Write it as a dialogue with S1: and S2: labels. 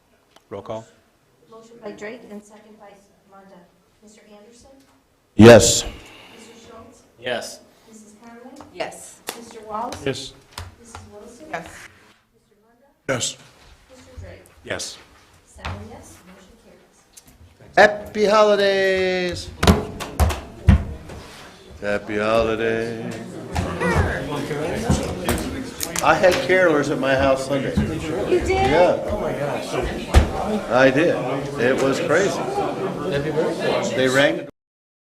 S1: Roll call?
S2: Motion by Drake and second by Mondo. Mr. Anderson?
S3: Yes.
S2: Mr. Schultz?
S4: Yes.
S2: Mrs. Conway?
S5: Yes.
S2: Mr. Wallace?
S1: Yes.
S2: Mrs. Wilson?
S5: Yes.
S2: Mr. Mondo?
S3: Yes.
S2: Mr. Drake?
S1: Yes.
S2: Seven yes, motion carries.
S3: Happy holidays. Happy holidays. I had carolers at my house Sunday.
S2: You did?
S3: Yeah. Oh, my gosh. I did. It was crazy. They rang the